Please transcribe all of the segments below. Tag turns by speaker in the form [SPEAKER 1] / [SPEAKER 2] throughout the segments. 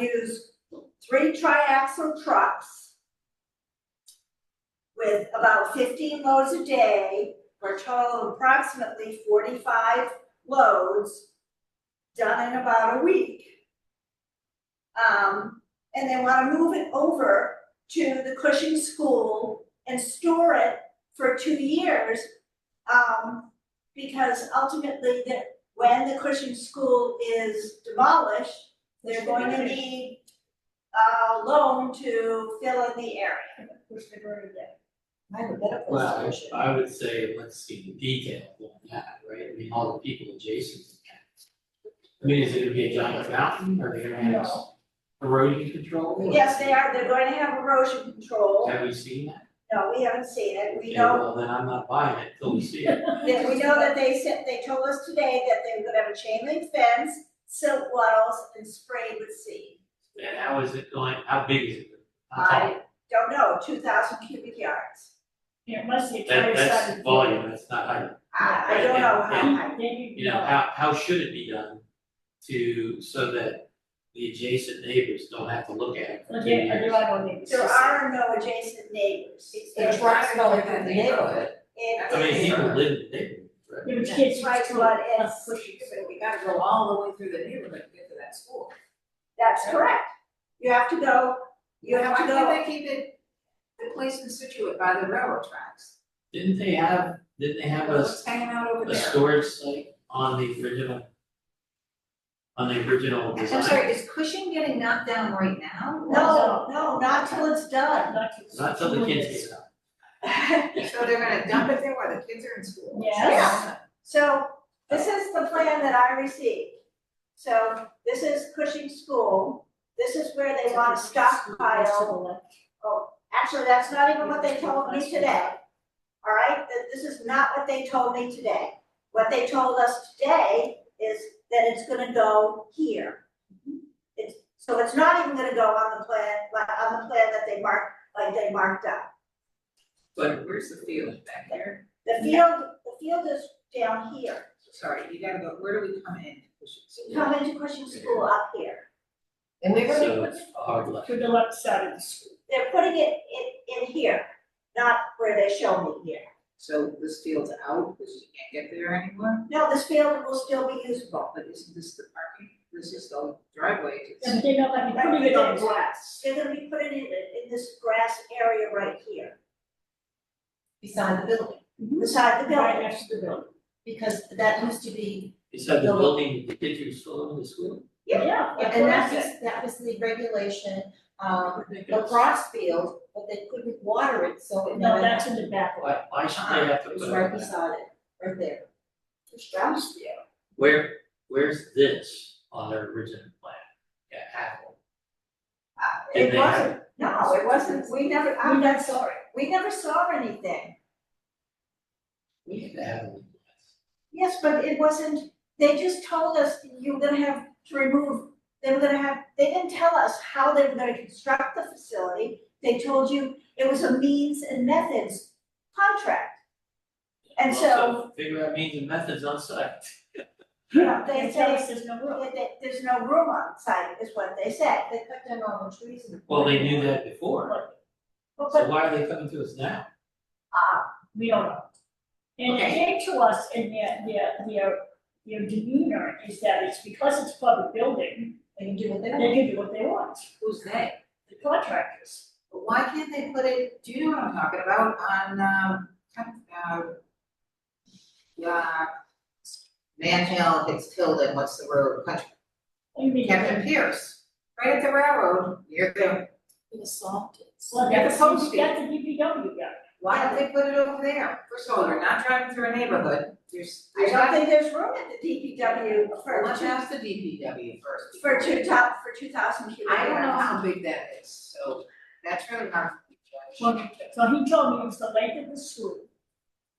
[SPEAKER 1] used three triaxle trucks with about fifteen loads a day, for a total of approximately forty-five loads done in about a week. Um, and they wanna move it over to the Cushing School and store it for two years. Um, because ultimately, the, when the Cushing School is demolished, they're going to need a loan to fill in the area.
[SPEAKER 2] Hypothetical
[SPEAKER 3] Well,
[SPEAKER 2] solution.
[SPEAKER 3] I would say, let's see the detail on that, right, I mean, all the people adjacent to that. I mean, is it gonna be a giant mountain, are they gonna have erosion control?
[SPEAKER 1] Yes, they are, they're going to have erosion control.
[SPEAKER 3] Have we seen that?
[SPEAKER 1] No, we haven't seen it, we
[SPEAKER 3] Okay,
[SPEAKER 1] know,
[SPEAKER 3] Well, then I'm not buying it till we see it,
[SPEAKER 1] that we know that they said, they told us today that they were gonna have a chain link fence, silt wattles and sprayed with seed.
[SPEAKER 3] and how is it going, how big is it? How tall?
[SPEAKER 1] I don't know, two thousand cubic yards.
[SPEAKER 4] Yeah, unless the entire
[SPEAKER 3] That,
[SPEAKER 4] side of
[SPEAKER 3] that's
[SPEAKER 4] the.
[SPEAKER 3] volume, that's not height,
[SPEAKER 1] I, I don't know how
[SPEAKER 3] Yeah.
[SPEAKER 1] high.
[SPEAKER 4] Maybe,
[SPEAKER 3] you know, how, how should it be done to, so that the adjacent neighbors don't have to look at it for two
[SPEAKER 4] Okay, I
[SPEAKER 3] years?
[SPEAKER 4] do, I don't need.
[SPEAKER 1] There are no adjacent neighbors.
[SPEAKER 2] The trucks go through the neighborhood.
[SPEAKER 1] It
[SPEAKER 3] I mean,
[SPEAKER 1] is-
[SPEAKER 3] people live in the neighborhood, right?
[SPEAKER 4] Your kids
[SPEAKER 1] Right, but
[SPEAKER 4] right to
[SPEAKER 1] it's-
[SPEAKER 4] pushing.
[SPEAKER 2] But we gotta go all the way through the neighborhood to get to that school.
[SPEAKER 1] That's correct. You have to go, you have to
[SPEAKER 2] Why
[SPEAKER 1] go,
[SPEAKER 2] can't they keep it, the place in Situate by the railroad tracks?
[SPEAKER 3] Didn't they have, didn't they have a,
[SPEAKER 2] Well,
[SPEAKER 3] s-
[SPEAKER 2] It's hanging out over
[SPEAKER 3] a
[SPEAKER 2] there.
[SPEAKER 3] storage site on the original? On the original
[SPEAKER 2] I'm
[SPEAKER 3] design?
[SPEAKER 2] sorry, is Cushing getting knocked down right now?
[SPEAKER 1] no, no, not till it's done.
[SPEAKER 3] Not till the kids get out.
[SPEAKER 2] So they're gonna dump it there while the kids are in school?
[SPEAKER 4] Yes.
[SPEAKER 1] So this is the plan that I received. So this is Cushing School. This is where they want to stockpile. Oh, actually, that's not even what they told me today. All right, Th- this is not what they told me today. What they told us today is that it's gonna go here. It's, so it's not even gonna go on the plan, like, on the plan that they marked, like they marked up.
[SPEAKER 5] But where's the field back there?
[SPEAKER 1] The field, the field is down here.
[SPEAKER 5] Sorry, you gotta go, where do we come in?
[SPEAKER 1] You come into Cushing School up here.
[SPEAKER 2] And they're gonna
[SPEAKER 3] So it's a hard left.
[SPEAKER 4] To the left side of the school.
[SPEAKER 1] They're putting it in, in here, not where they show me here.
[SPEAKER 5] So this field's out, because you can't get there anymore,
[SPEAKER 1] No, this field will still be usable.
[SPEAKER 5] but isn't this the parking? This is the driveway to.
[SPEAKER 4] And they don't like
[SPEAKER 1] Right,
[SPEAKER 4] putting it
[SPEAKER 1] don't
[SPEAKER 4] in
[SPEAKER 1] want-
[SPEAKER 4] glass.
[SPEAKER 1] They're gonna be putting it in, in this grass area right here,
[SPEAKER 2] beside the building,
[SPEAKER 4] Mm-hmm.
[SPEAKER 1] beside the
[SPEAKER 4] Right
[SPEAKER 1] building.
[SPEAKER 4] next to the building.
[SPEAKER 2] because that used to be,
[SPEAKER 3] Is that the
[SPEAKER 2] No.
[SPEAKER 3] building, the kids are still in the school?
[SPEAKER 1] Yeah.
[SPEAKER 4] Yeah.
[SPEAKER 2] and that was, that was the regulation, um, lacrosse field, but they couldn't water it, so it
[SPEAKER 4] No,
[SPEAKER 2] never.
[SPEAKER 4] that's in the back way.
[SPEAKER 3] Why, why should they have to
[SPEAKER 2] It
[SPEAKER 3] put
[SPEAKER 2] was
[SPEAKER 3] it
[SPEAKER 2] right
[SPEAKER 3] on that?
[SPEAKER 2] beside it, right there.
[SPEAKER 3] Where, where's this on their original plan? Yeah, Apple.
[SPEAKER 1] Uh,
[SPEAKER 3] Did
[SPEAKER 1] It
[SPEAKER 3] they
[SPEAKER 1] wasn't, no, it wasn't, we never, I'm not sorry, we never saw anything.
[SPEAKER 3] We had to have one.
[SPEAKER 1] Yes, but it wasn't, they just told us you were gonna have to remove, they were gonna have, they didn't tell us how they were gonna construct the facility. They told you it was a means and methods contract. And so,
[SPEAKER 3] Well, Figure out means and methods on site.
[SPEAKER 1] you know, they
[SPEAKER 4] And tell us
[SPEAKER 1] say,
[SPEAKER 4] there's no room.
[SPEAKER 1] that they- there's no room on site is what they said.
[SPEAKER 2] They cut down all the trees and.
[SPEAKER 3] Well, they knew that before,
[SPEAKER 1] But,
[SPEAKER 3] so
[SPEAKER 1] but,
[SPEAKER 3] why are they coming to us now?
[SPEAKER 1] uh,
[SPEAKER 4] We don't know. And it came to us and their, their, their, their demeanor is that it's because it's public building,
[SPEAKER 2] They can do what they
[SPEAKER 4] they
[SPEAKER 2] want.
[SPEAKER 4] can do what they want,
[SPEAKER 2] Who's they?
[SPEAKER 4] the contractors.
[SPEAKER 2] But why can't they put it,
[SPEAKER 5] Do you know what I'm talking about on, um, kind of, uh, yeah,
[SPEAKER 2] Van Hill gets killed in, what's the road, country,
[SPEAKER 4] What do you mean?
[SPEAKER 5] Captain Pierce, right at the railroad, near the,
[SPEAKER 4] Well,
[SPEAKER 5] Yeah, the
[SPEAKER 4] that's,
[SPEAKER 5] post
[SPEAKER 4] that's the DPW guy.
[SPEAKER 5] why don't they put it over there? First of all, you're not driving through a neighborhood, there's,
[SPEAKER 1] I
[SPEAKER 5] there's
[SPEAKER 1] don't
[SPEAKER 5] not,
[SPEAKER 1] think there's room at the DPW for
[SPEAKER 5] let's
[SPEAKER 1] two,
[SPEAKER 5] ask the DPW first.
[SPEAKER 1] for two top, for two thousand cubic
[SPEAKER 5] I don't know
[SPEAKER 1] yards.
[SPEAKER 5] how big that is, so that's really hard for me to judge.
[SPEAKER 4] Well, So he told me it was the length of the school.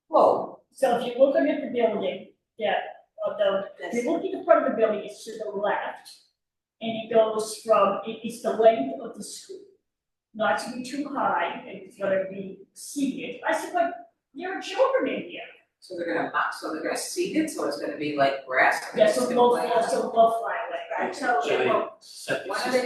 [SPEAKER 2] whoa,
[SPEAKER 4] So if you're looking at the building, yeah, although, if you look at the front of the building, it's to the left. And it goes from, it is the length of the school. Not to be too high, and it's gonna be seated. I said, but there are children in here.
[SPEAKER 5] So they're gonna box, so they're gonna seed it, so it's gonna be like grass. and
[SPEAKER 4] Yeah,
[SPEAKER 5] it's
[SPEAKER 4] so
[SPEAKER 5] gonna
[SPEAKER 4] low,
[SPEAKER 5] plant.
[SPEAKER 4] so low fly away, right?
[SPEAKER 1] Right, so
[SPEAKER 3] So
[SPEAKER 1] it
[SPEAKER 3] they
[SPEAKER 1] will
[SPEAKER 3] set the
[SPEAKER 5] Why are
[SPEAKER 3] system.
[SPEAKER 5] they